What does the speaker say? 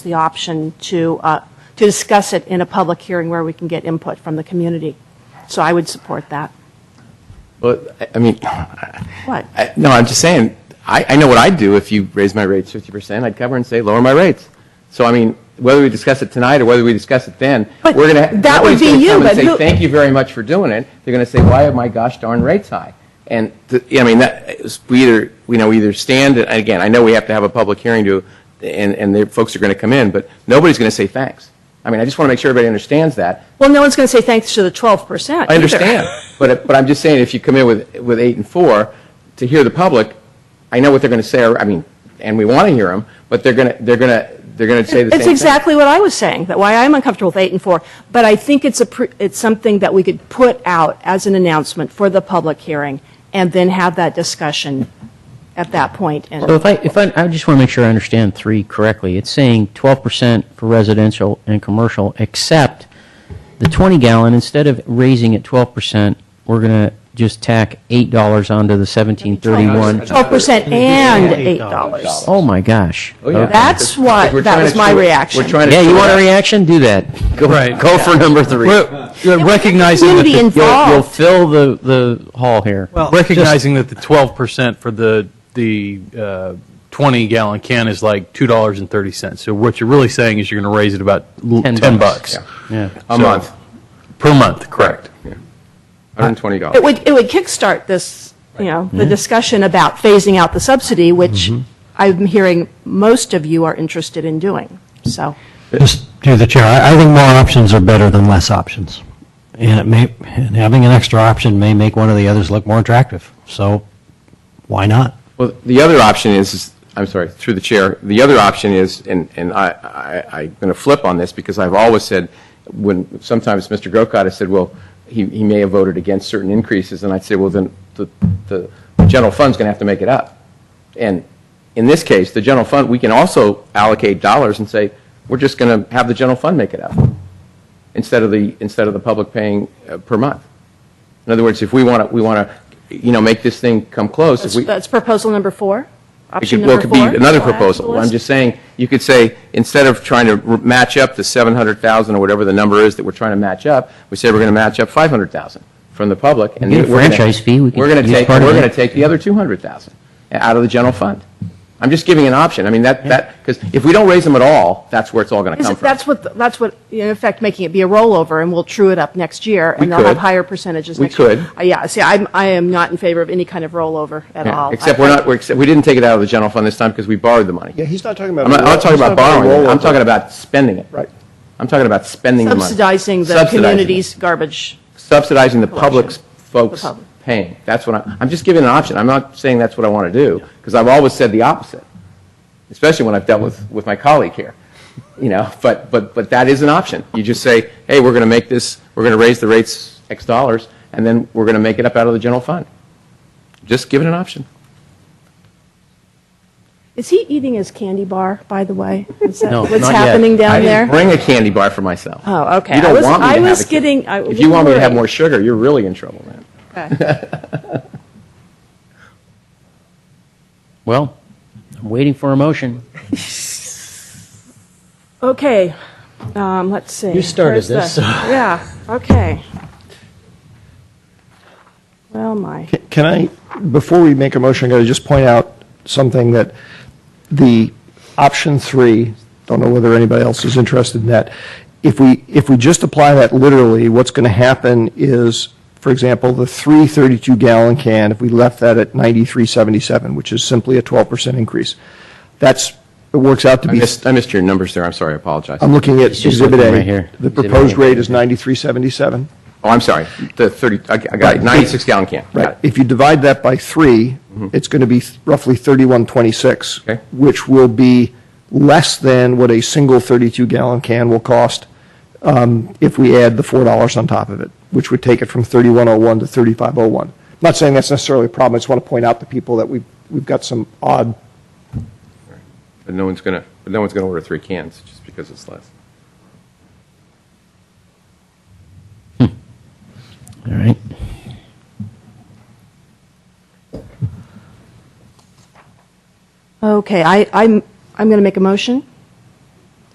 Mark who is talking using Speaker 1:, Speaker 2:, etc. Speaker 1: the option to, uh, to discuss it in a public hearing where we can get input from the community. So I would support that.
Speaker 2: Well, I- I mean,
Speaker 1: What?
Speaker 2: I- no, I'm just saying, I, I know what I'd do if you raised my rates 50%, I'd cover and say, lower my rates. So, I mean, whether we discuss it tonight or whether we discuss it then,
Speaker 1: But
Speaker 2: we're going to,
Speaker 1: that would be you,
Speaker 2: come and
Speaker 1: but
Speaker 2: say,
Speaker 1: who-
Speaker 2: thank you very much for doing it. They're going to say, why are my gosh darn rates high? And, th- yeah, I mean, that, is- we either, you know, we either stand, and again, I know we have to have a public hearing to, and, and the folks are going to come in, but nobody's going to say thanks. I mean, I just want to make sure everybody understands that.
Speaker 1: Well, no one's going to say thanks to the 12%
Speaker 2: I understand, but, but I'm just saying, if you come in with, with eight and four, to hear the public, I know what they're going to say, or- I mean, and we want to hear them, but they're going to, they're going to, they're going to say the same
Speaker 1: It's
Speaker 2: thing.
Speaker 1: exactly what I was saying, that why I'm uncomfortable with eight and four. But I think it's a, pr- it's something that we could put out as an announcement for the public hearing and then have that discussion at that point. And
Speaker 3: So if I, if I, I just want to make sure I understand three correctly. It's saying twelve percent for residential and commercial, except the twenty gallon, instead of raising it twelve percent, we're gonna just tack eight dollars onto the seventeen thirty-one.
Speaker 1: 12% and $8.
Speaker 3: Oh my gosh.
Speaker 2: Oh, yeah.
Speaker 1: That's
Speaker 2: Because we're
Speaker 1: what, that
Speaker 2: trying
Speaker 1: was
Speaker 2: to
Speaker 1: my
Speaker 2: chew-
Speaker 1: reaction.
Speaker 2: We're trying to.
Speaker 3: Yeah, you
Speaker 2: chew
Speaker 3: want a
Speaker 2: it up.
Speaker 3: reaction? Do that. Go,
Speaker 4: Right.
Speaker 3: go for number three.
Speaker 4: Well, yeah, recognizing that
Speaker 1: Community
Speaker 4: the,
Speaker 3: You'll, you'll
Speaker 1: involved.
Speaker 3: fill the, the hall here.
Speaker 4: recognizing that the twelve percent for the the uh, twenty gallon can is like two dollars and thirty cents. So what you're really saying is you're going to raise it about l- ten,
Speaker 3: Ten
Speaker 4: bucks,
Speaker 3: bucks. Yeah.
Speaker 2: A
Speaker 4: So-
Speaker 2: month,
Speaker 4: per month, correct?
Speaker 2: $120.
Speaker 1: It would, it would kickstart this, you know,
Speaker 2: Mm-hmm.
Speaker 1: the discussion about phasing out the subsidy, which I'm hearing most of you are interested in doing, so.
Speaker 5: Just through the chair, I I think more options are better than less options. And it may, and having an extra option may make one of the others look more attractive. So why not?
Speaker 2: Well, the other option is- is, I'm sorry, through the chair, the other option is, and, and I, I, I'm going to flip on this because I've always said, when, sometimes Mr. Grocott has said, well, he, he may have voted against certain increases, and I'd say, well, then the, the general fund's going to have to make it up. And in this case, the general fund, we can also allocate dollars and say, we're just going to have the general fund make it up instead of the, instead of the public paying uh, per month. In other words, if we want to, we want to, you know, make this thing come close, if
Speaker 1: That's-
Speaker 2: we.
Speaker 1: That's proposal number four,
Speaker 2: It
Speaker 1: option
Speaker 2: could- Well,
Speaker 1: number
Speaker 2: it could
Speaker 1: four.
Speaker 2: be another
Speaker 1: Go ahead,
Speaker 2: proposal. I'm
Speaker 1: Liz.
Speaker 2: just saying, you could say, instead of trying to r- match up the 700,000 or whatever the number is that we're trying to match up, we say we're going to match up 500,000 from the public. and
Speaker 3: We get a
Speaker 2: we're gonna-
Speaker 3: franchise fee, we can
Speaker 2: We're going to
Speaker 3: use
Speaker 2: take, we're
Speaker 3: part of
Speaker 2: going to
Speaker 3: it.
Speaker 2: take the other 200,000 out of the general fund. I'm just giving an option. I mean, that, that, because if we don't raise them at all, that's where it's all going to
Speaker 1: Is
Speaker 2: come
Speaker 1: it-
Speaker 2: from.
Speaker 1: That's what, that's what, in effect, making it be a rollover, and we'll true it up next year,
Speaker 2: We
Speaker 1: and they'll have
Speaker 2: could.
Speaker 1: higher percentages
Speaker 2: We
Speaker 1: next year.
Speaker 2: could.
Speaker 1: Uh, Yeah, see, I'm, I am not in favor of any kind of rollover at
Speaker 2: Yeah,
Speaker 1: all.
Speaker 2: Except
Speaker 1: I-
Speaker 2: we're
Speaker 1: I-
Speaker 2: not, we're, except- we didn't take it out of the general fund this time because we borrowed the money.
Speaker 6: Yeah, he's not talking about.
Speaker 2: I'm not, I'm not talking
Speaker 6: he's
Speaker 2: about
Speaker 6: a
Speaker 2: borrowing it. I'm
Speaker 6: rollover.
Speaker 2: talking about spending it.
Speaker 6: Right.
Speaker 2: I'm talking about spending the money.
Speaker 1: Subsidizing the
Speaker 2: Subsidizing it.
Speaker 1: community's garbage.
Speaker 2: subsidizing the public's
Speaker 1: Collection.
Speaker 2: folks
Speaker 1: The public.
Speaker 2: paying. That's what I, I'm just giving an option. I'm not saying that's what I want to do, because I've always said the opposite, especially when I've dealt with, with my colleague here. You know, but, but, but that is an option. You just say, hey, we're going to make this, we're going to raise the rates X dollars, and then we're going to make it up out of the general fund. Just give it an option.
Speaker 1: Is he eating his candy bar, by the way? Is that
Speaker 3: No,
Speaker 1: what's
Speaker 3: not yet.
Speaker 1: happening down
Speaker 2: I
Speaker 1: there?
Speaker 2: didn't bring a candy bar for myself.
Speaker 1: Oh, okay.
Speaker 2: You
Speaker 1: I
Speaker 2: don't
Speaker 1: was-
Speaker 2: want me to
Speaker 1: I
Speaker 2: have
Speaker 1: was
Speaker 2: a candy-
Speaker 1: getting- I
Speaker 2: If you want me to have
Speaker 1: worried.
Speaker 2: more sugar, you're really in trouble, man.
Speaker 3: Well, I'm waiting for a motion.
Speaker 1: Okay, um, let's see.
Speaker 5: You
Speaker 1: Where's
Speaker 5: started
Speaker 1: the-
Speaker 5: this, so-
Speaker 1: Yeah, okay. Well, my,
Speaker 6: Can I, before we make a motion, I'm going to just point out something that the option three, don't know whether anybody else is interested in that. If we, if we just apply that literally, what's going to happen is, for example, the three 32 gallon can, if we left that at 93.77, which is simply a 12% increase, that's, it works out to
Speaker 2: I
Speaker 6: be
Speaker 2: missed, I missed your numbers there. I'm sorry. I apologize.
Speaker 6: I'm looking at
Speaker 3: It's just
Speaker 6: Exhibit
Speaker 3: looking
Speaker 6: A.
Speaker 3: right here.
Speaker 6: The
Speaker 3: Exhibit
Speaker 6: proposed
Speaker 3: A.
Speaker 6: rate is 9377.
Speaker 2: Oh, I'm sorry, the 30, I I got it,
Speaker 6: Right.
Speaker 2: 96 gallon can. Got
Speaker 6: Right.
Speaker 2: it. Mm-hmm.
Speaker 6: If you divide that by three, it's going to be roughly 3126,
Speaker 2: Okay.
Speaker 6: which will be less than what a single 32-gallon can will cost um, if we add the $4 on top of it, which would take it from 3101 to 3501. I'm Not saying that's necessarily a problem, I just want to point out to people that we've, we've got some odd,
Speaker 2: But no one's gonna, but no one's gonna order three cans just because it's less.
Speaker 3: All right.
Speaker 1: okay, I, I'm, I'm going to make a motion